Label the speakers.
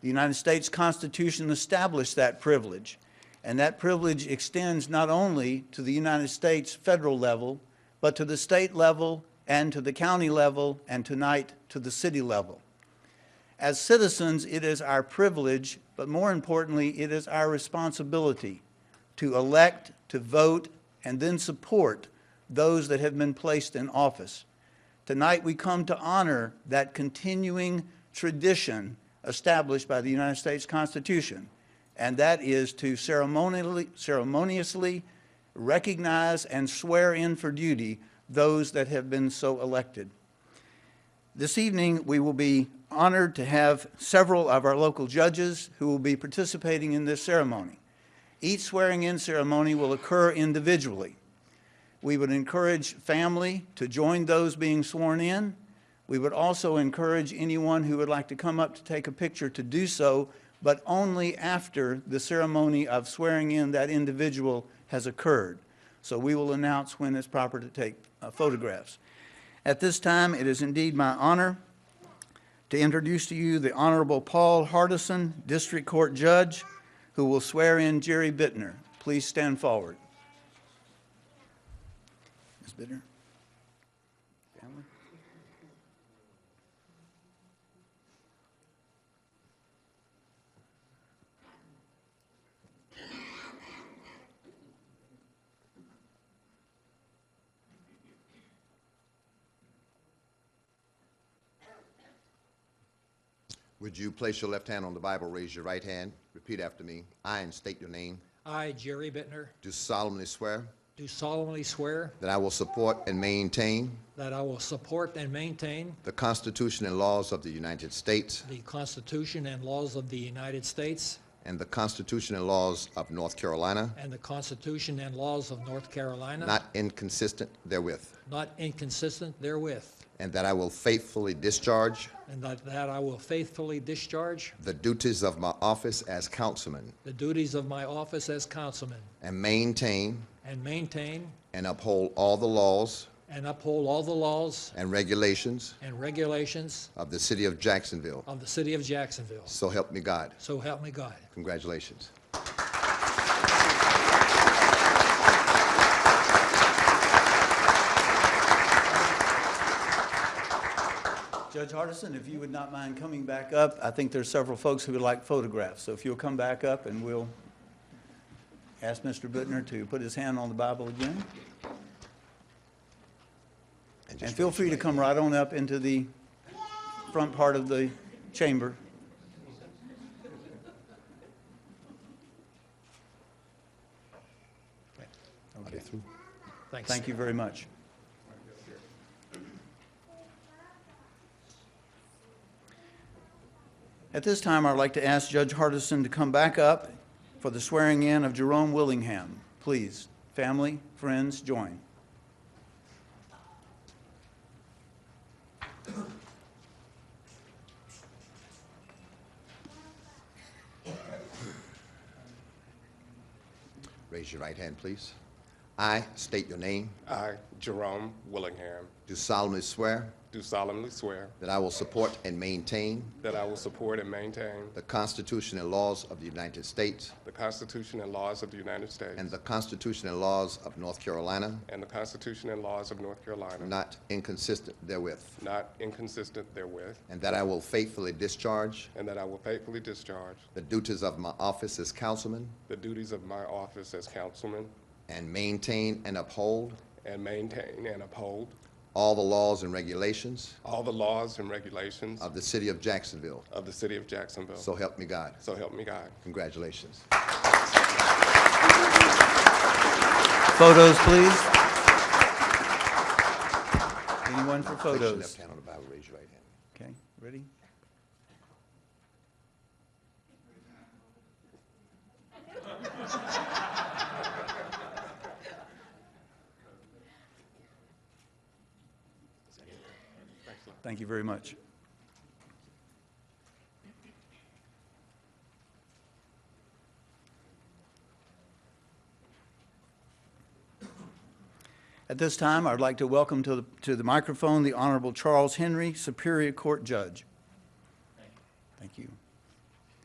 Speaker 1: The United States Constitution established that privilege, and that privilege extends not only to the United States federal level, but to the state level and to the county level, and tonight to the city level. As citizens, it is our privilege, but more importantly, it is our responsibility to elect, to vote, and then support those that have been placed in office. Tonight, we come to honor that continuing tradition established by the United States Constitution, and that is to ceremonially, ceremoniously recognize and swear in for duty those that have been so elected. This evening, we will be honored to have several of our local judges who will be participating in this ceremony. Each swearing-in ceremony will occur individually. We would encourage family to join those being sworn in. We would also encourage anyone who would like to come up to take a picture to do so, but only after the ceremony of swearing in that individual has occurred. So we will announce when it's proper to take uh, photographs. At this time, it is indeed my honor to introduce to you the Honorable Paul Hardison, District Court Judge, who will swear in Jerry Bittner. Please stand forward. Ms. Bittner? Family?
Speaker 2: Would you place your left hand on the Bible, raise your right hand, repeat after me. I, and state your name,
Speaker 3: I, Jerry Bittner,
Speaker 2: do solemnly swear
Speaker 3: do solemnly swear
Speaker 2: that I will support and maintain
Speaker 3: that I will support and maintain
Speaker 2: the Constitution and laws of the United States
Speaker 3: the Constitution and laws of the United States
Speaker 2: and the Constitution and laws of North Carolina,
Speaker 3: and the Constitution and laws of North Carolina,
Speaker 2: not inconsistent therewith,
Speaker 3: not inconsistent therewith,
Speaker 2: and that I will faithfully discharge
Speaker 3: and that that I will faithfully discharge
Speaker 2: the duties of my office as councilman
Speaker 3: the duties of my office as councilman
Speaker 2: and maintain
Speaker 3: and maintain
Speaker 2: and uphold all the laws
Speaker 3: and uphold all the laws
Speaker 2: and regulations
Speaker 3: and regulations
Speaker 2: of the city of Jacksonville.
Speaker 3: of the city of Jacksonville.
Speaker 2: So help me God.
Speaker 3: So help me God.
Speaker 2: Congratulations.
Speaker 1: Judge Hardison, if you would not mind coming back up, I think there's several folks who would like photographs. So if you'll come back up and we'll ask Mr. Bittner to put his hand on the Bible again. And
Speaker 2: just
Speaker 1: feel free to come right on up into the front part of the chamber.
Speaker 2: Are they through?
Speaker 3: Thanks.
Speaker 1: Thank you very much. At this time, I'd like to ask Judge Hardison to come back up for the swearing-in of Jerome Willingham. Please, family, friends, join.
Speaker 2: Raise your right hand, please. I state your name.
Speaker 4: I, Jerome Willingham,
Speaker 2: Do solemnly swear
Speaker 4: do solemnly swear
Speaker 2: that I will support and maintain
Speaker 4: that I will support and maintain
Speaker 2: the Constitution and laws of the United States
Speaker 4: the Constitution and laws of the United States
Speaker 2: and the Constitution and laws of North Carolina,
Speaker 4: and the Constitution and laws of North Carolina,
Speaker 2: not inconsistent therewith,
Speaker 4: not inconsistent therewith,
Speaker 2: and that I will faithfully discharge
Speaker 4: and that I will faithfully discharge
Speaker 2: the duties of my office as councilman
Speaker 4: the duties of my office as councilman
Speaker 2: and maintain and uphold
Speaker 4: and maintain and uphold
Speaker 2: all the laws and regulations
Speaker 4: all the laws and regulations
Speaker 2: of the city of Jacksonville.
Speaker 4: of the city of Jacksonville.
Speaker 2: So help me God.
Speaker 4: So help me God.
Speaker 2: Congratulations.
Speaker 1: Photos, please. Anyone for
Speaker 2: Place your
Speaker 1: photos?
Speaker 2: left hand on the Bible, raise your right hand.
Speaker 1: Okay, ready? Thank you very much. At this time, I'd like to welcome to the, to the microphone the Honorable Charles Henry, Superior Court Judge.